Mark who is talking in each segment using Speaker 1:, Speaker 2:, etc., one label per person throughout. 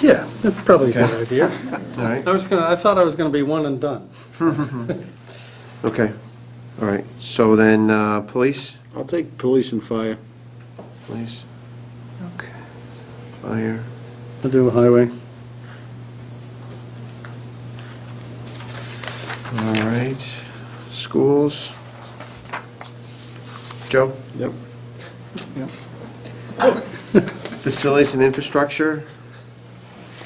Speaker 1: Yeah, that's probably a good idea.
Speaker 2: All right,
Speaker 1: I was gonna, I thought I was gonna be one and done.
Speaker 2: okay, all right. So then, uh, police,
Speaker 3: I'll take police and fire.
Speaker 2: police. Okay. Fire,
Speaker 1: I'll do highway.
Speaker 2: all right. Schools. Joe,
Speaker 3: Yep.
Speaker 2: facilities and infrastructure,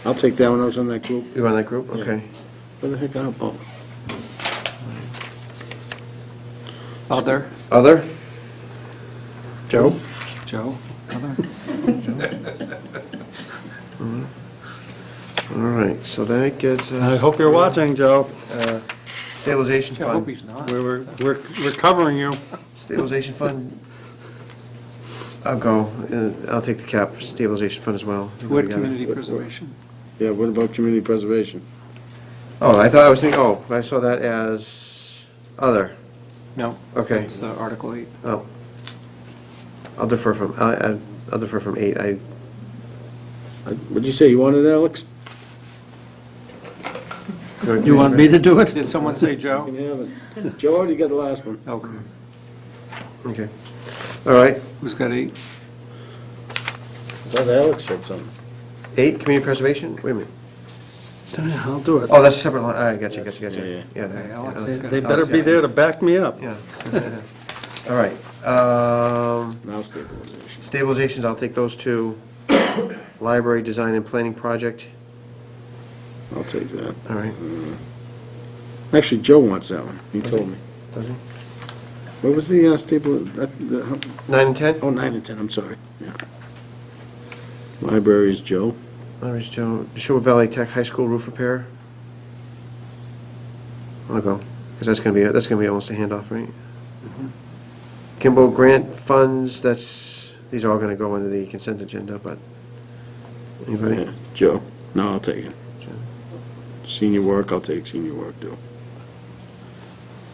Speaker 3: I'll take that one. I was on that group.
Speaker 2: you on that group?
Speaker 3: Yeah.
Speaker 2: Okay.
Speaker 3: Where the heck am I? Oh,
Speaker 4: Other,
Speaker 2: Other? Joe?
Speaker 4: Joe, other.
Speaker 2: All right, so that gets us.
Speaker 1: I hope you're watching, Joe.
Speaker 2: Stabilization
Speaker 4: Gee, I hope he's
Speaker 2: fund.
Speaker 4: not.
Speaker 1: We're, we're- we're, we're covering you.
Speaker 2: Stabilization fund. I'll go, uh, I'll take the cap for stabilization fund as well.
Speaker 4: Wood Community Preservation.
Speaker 3: Yeah, what about community preservation?
Speaker 2: Oh, I thought, I was thinking, oh, I saw that as other,
Speaker 4: No,
Speaker 2: okay.
Speaker 4: it's uh, Article 8.
Speaker 2: Oh. I'll defer from, I- I- I'll defer from eight, I,
Speaker 3: I- What'd you say? You wanted Alex?
Speaker 1: You want me to do it?
Speaker 4: Did someone say
Speaker 3: You
Speaker 4: Joe?
Speaker 3: can have it. Joe, you got the last one.
Speaker 4: Okay.
Speaker 2: okay. All right,
Speaker 4: Who's got 8?
Speaker 3: I thought Alex said something.
Speaker 2: eight, community preservation, wait a minute.
Speaker 1: I'll do it.
Speaker 2: Oh, that's a separate line, I got you, got you, got
Speaker 3: That's-
Speaker 2: you. Yeah,
Speaker 4: yeah.
Speaker 2: yeah,
Speaker 4: Alex
Speaker 2: Alex.
Speaker 4: is good.
Speaker 1: They better be there to back me up.
Speaker 2: Yeah. All right, um,
Speaker 3: Now stabilization.
Speaker 2: stabilizations, I'll take those two. Library design and planning project,
Speaker 3: I'll take that.
Speaker 2: all right,
Speaker 3: Actually, Joe wants that one. He told me.
Speaker 2: does it?
Speaker 3: What was the uh, stable, that- the-
Speaker 2: Nine and ten?
Speaker 3: oh, nine and 10, I'm sorry. Yeah. Library is Joe.
Speaker 2: Larry Joe, Neshoba Valley Tech High School roof repair. I'll go, because that's gonna be, that's gonna be almost a handoff, right? Kimball grant funds, that's, these are all gonna go into the consent agenda, but, anybody?
Speaker 3: Yeah, Joe. No, I'll take it. Senior work, I'll take senior work, too.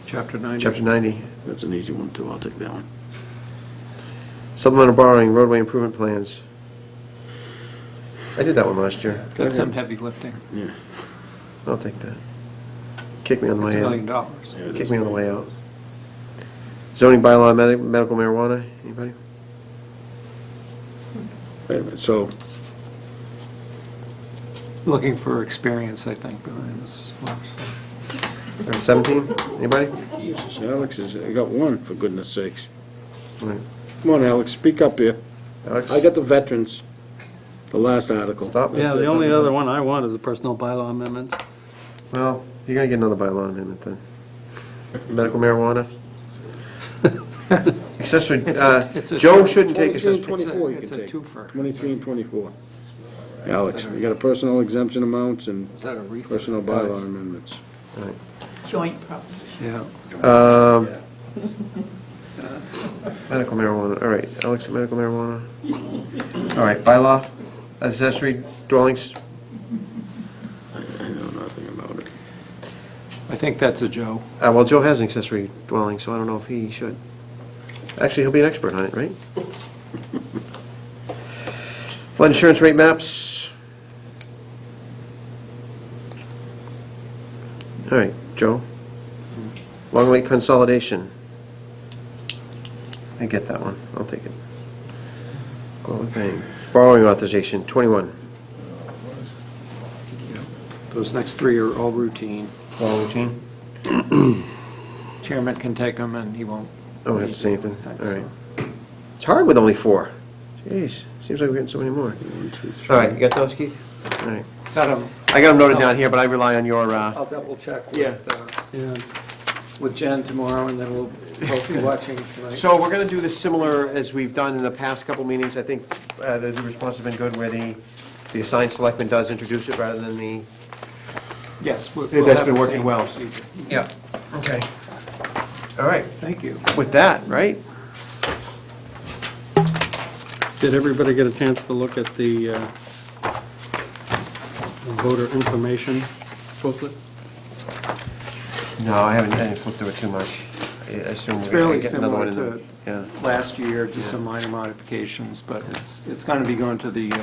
Speaker 4: Chapter 90.
Speaker 2: Chapter ninety,
Speaker 3: That's an easy one, too. I'll take that one.
Speaker 2: supplemental borrowing, roadway improvement plans. I did that one last year,
Speaker 4: That's some heavy lifting.
Speaker 3: Yeah.
Speaker 2: I'll take that. Kick me on the
Speaker 4: It's a
Speaker 2: way
Speaker 4: million
Speaker 2: out,
Speaker 4: dollars.
Speaker 3: Yeah, it
Speaker 2: kick
Speaker 3: is.
Speaker 2: me on the way out. Zoning bylaw, medi- medical marijuana, anybody?
Speaker 3: Wait a minute, so
Speaker 4: Looking for experience, I think, behind this.
Speaker 2: Seventeen, anybody?
Speaker 3: so Alex is, I got one, for goodness sakes.
Speaker 2: All right.
Speaker 3: Come on, Alex, speak up here.
Speaker 2: Alex?
Speaker 3: I got the veterans, the last article.
Speaker 2: Stop.
Speaker 1: Yeah,
Speaker 3: That's
Speaker 1: the
Speaker 3: it.
Speaker 1: only other one I want is the personal bylaw amendments.
Speaker 2: Well, you're gonna get another bylaw amendment then. Medical marijuana? Accessory,
Speaker 4: It's a-
Speaker 2: uh,
Speaker 4: it's a-
Speaker 2: Joe shouldn't take
Speaker 3: Twenty-three and
Speaker 2: accessory.
Speaker 3: twenty-four you
Speaker 4: It's
Speaker 3: can
Speaker 4: a
Speaker 3: take.
Speaker 4: twofer.
Speaker 3: Twenty-three and twenty-four. Alex, you got a personal exemption amounts and
Speaker 4: Is that a refit?
Speaker 3: personal bylaw amendments.
Speaker 5: joint proposition.
Speaker 4: Yeah.
Speaker 2: Um, Medical marijuana, all right, Alex, medical marijuana. All right, bylaw, accessory dwellings,
Speaker 3: I know nothing about it.
Speaker 4: I think that's a Joe.
Speaker 2: uh, well, Joe has an accessory dwelling, so I don't know if he should. Actually, he'll be an expert on it, right? Flood insurance rate maps. All right, Joe. Long Lake consolidation. I get that one, I'll take it. Go with bang. Borrowing authorization, 21.
Speaker 4: Those next three are all routine.
Speaker 2: Borrowing routine?
Speaker 4: Chairman can take them and he won't.
Speaker 2: I don't have to say anything,
Speaker 4: Thanks.
Speaker 2: all right. It's hard with only four. Jeez, seems like we're getting so many more.
Speaker 3: One, two, three.
Speaker 2: All right, you got those, Keith? All right.
Speaker 4: Got 'em.
Speaker 2: I got them noted down here, but I rely on your, uh,
Speaker 4: I'll double check
Speaker 2: Yeah.
Speaker 4: with, uh,
Speaker 1: Yeah,
Speaker 4: with Jen tomorrow, and then we'll both be watching tonight.
Speaker 2: So we're going to do this similar as we've done in the past couple meetings. I think uh, the the response has been good where the, the assigned selectman does introduce it rather than the.
Speaker 4: Yes. we-
Speaker 2: Hey,
Speaker 4: we'll
Speaker 2: that's
Speaker 4: have
Speaker 2: been
Speaker 4: the
Speaker 2: working
Speaker 4: same
Speaker 2: well.
Speaker 4: procedure.
Speaker 2: Yeah. Okay. All right,
Speaker 4: Thank you.
Speaker 2: with that, right?
Speaker 1: Did everybody get a chance to look at the uh, voter information booklet?
Speaker 2: No, I haven't, I didn't flip through it too much. I assume
Speaker 4: It's
Speaker 2: we're
Speaker 4: fairly
Speaker 2: going to get another one
Speaker 4: similar
Speaker 2: in the.
Speaker 4: to last year, just some minor modifications, but it's, it's going to be going to the uh,